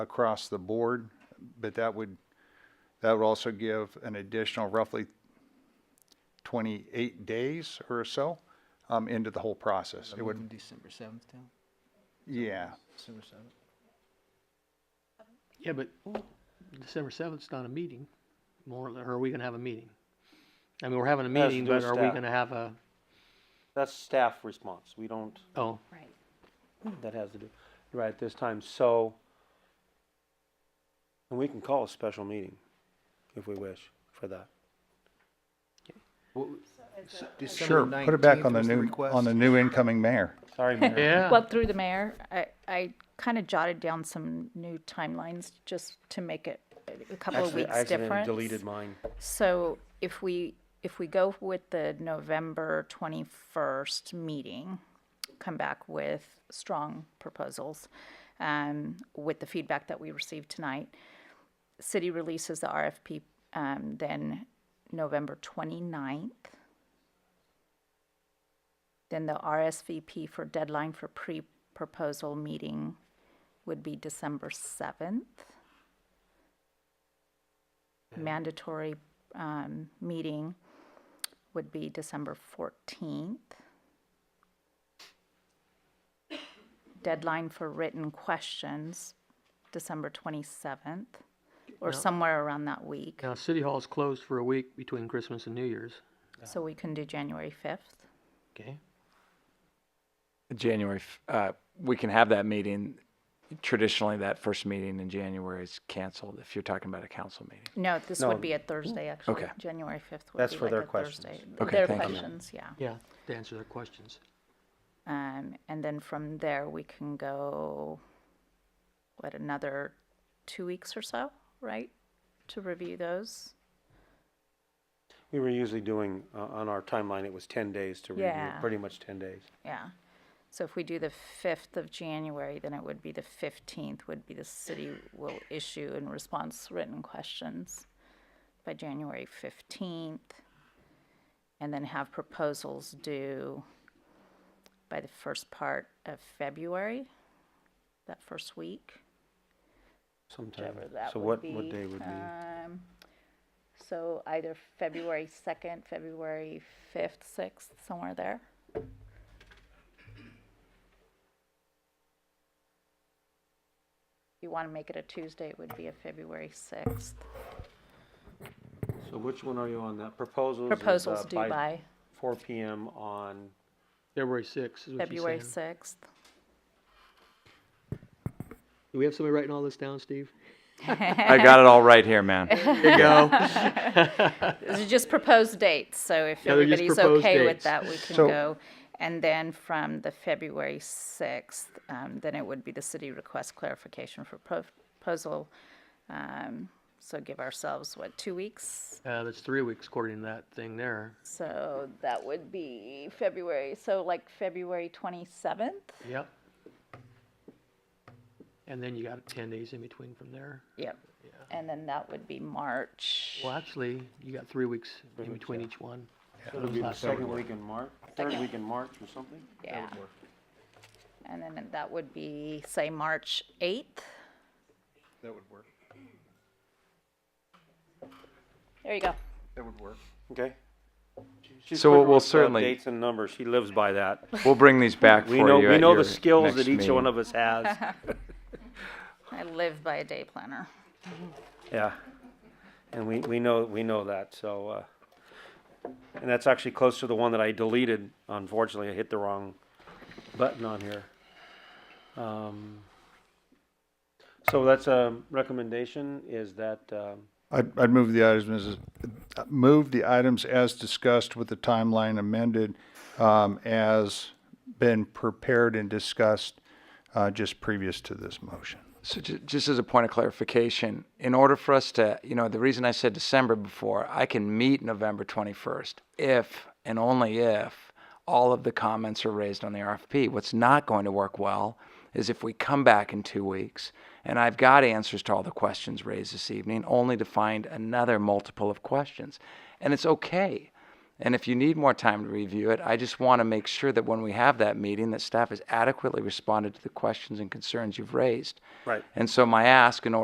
across the board, but that would, that would also give an additional roughly 28 days or so um, into the whole process. It would, December seventh down, yeah, December seventh. Yeah, but December seventh's not a meeting, more, or are we gonna have a meeting? I mean, we're having a That's meeting, but just are we that. gonna have a, That's staff response. We don't, oh, Right. Hmm. that has to do, right at this time, so. And we can call a special meeting if we wish for that. sure, put it back on the new, on the new incoming mayor. Sorry, Mayor. yeah, Well, through the mayor, I, I kind of jotted down some new timelines just to make it a couple of Accident- weeks accidentally difference. Deleted mine. So if we, if we go with the November twenty-first meeting, come back with strong proposals, um, with the feedback that we received tonight, city releases the RFP, um, then November twenty-ninth. Then the RSVP for deadline for pre-proposal meeting would be December seventh mandatory um, meeting would be December 14th. Deadline for written questions, December 27th, or somewhere around that week. now, City Hall's closed for a week between Christmas and New Year's, So we can do January 5th. okay? January, f- uh, we can have that meeting. Traditionally, that first meeting in January is canceled if you're talking about a council meeting. No, this would No. be a Thursday, actually. Okay. January 5th would That's be for like their a Thursday. questions. Okay, Their thank you. questions, yeah. Yeah, to answer their questions. Um, and then from there, we can go, what, another two weeks or so, right? To review those? We were usually doing, uh, on our timeline, it was ten days to review, Yeah. pretty much ten days. Yeah. So if we do the fifth of January, then it would be the fifteenth would be the city will issue in response written questions by January fifteenth. And then have proposals due by the first part of February, that first week. Sometime. Whichever that So would what, be, what day would be? Um, so either February second, February fifth, sixth, somewhere there. If you want to make it a Tuesday, it would be a February sixth. So which one are you on that? Proposals? is, uh, Proposals due by Four P M on, February sixth is what she's February saying. sixth. Do we have somebody writing all this down, Steve? I got it all right here, man. There you go. These are just proposed dates, so if Yeah, they're just everybody's proposed okay with dates. that, we can So- go. And then from the February 6th, um, then it would be the city request clarification for pro- proposal. Um, So give ourselves, what, two weeks? Uh, that's three weeks according to that thing there. So that would be February, so like February 27th? Yep. And then you got ten days in between from there. Yep. And then that would be March. Well, actually, you got three weeks in between each one. so it'll be the second week in March, third week in March or something? Yeah. And then that would be, say, March 8th? That would work. There you go. That would work. Okay. She's So quick we'll with, uh, certainly- Dates and numbers, she lives by that. We'll bring these back for We you. know, we at know your the skills next that each one meeting. of us has. I live by a day planner. Yeah, and we, we know, we know that, so, uh, and that's actually close to the one that I deleted, unfortunately, I hit the wrong button on here. Um, So that's a recommendation, is that, um, I'd, I'd move the items, as- move the items as discussed with the timeline amended, um, as been prepared and discussed, uh, just previous to this motion. So ju- just as a point of clarification, in order for us to, you know, the reason I said December before, I can meet November 21st if and only if all of the comments are raised on the RFP. What's not going to work well is if we come back in two weeks and I've got answers to all the questions raised this evening, only to find another multiple of questions. And it's okay. And if you need more time to review it, I just want to make sure that when we have that meeting, that staff has adequately responded to the questions and concerns you've raised. Right. And so my ask in order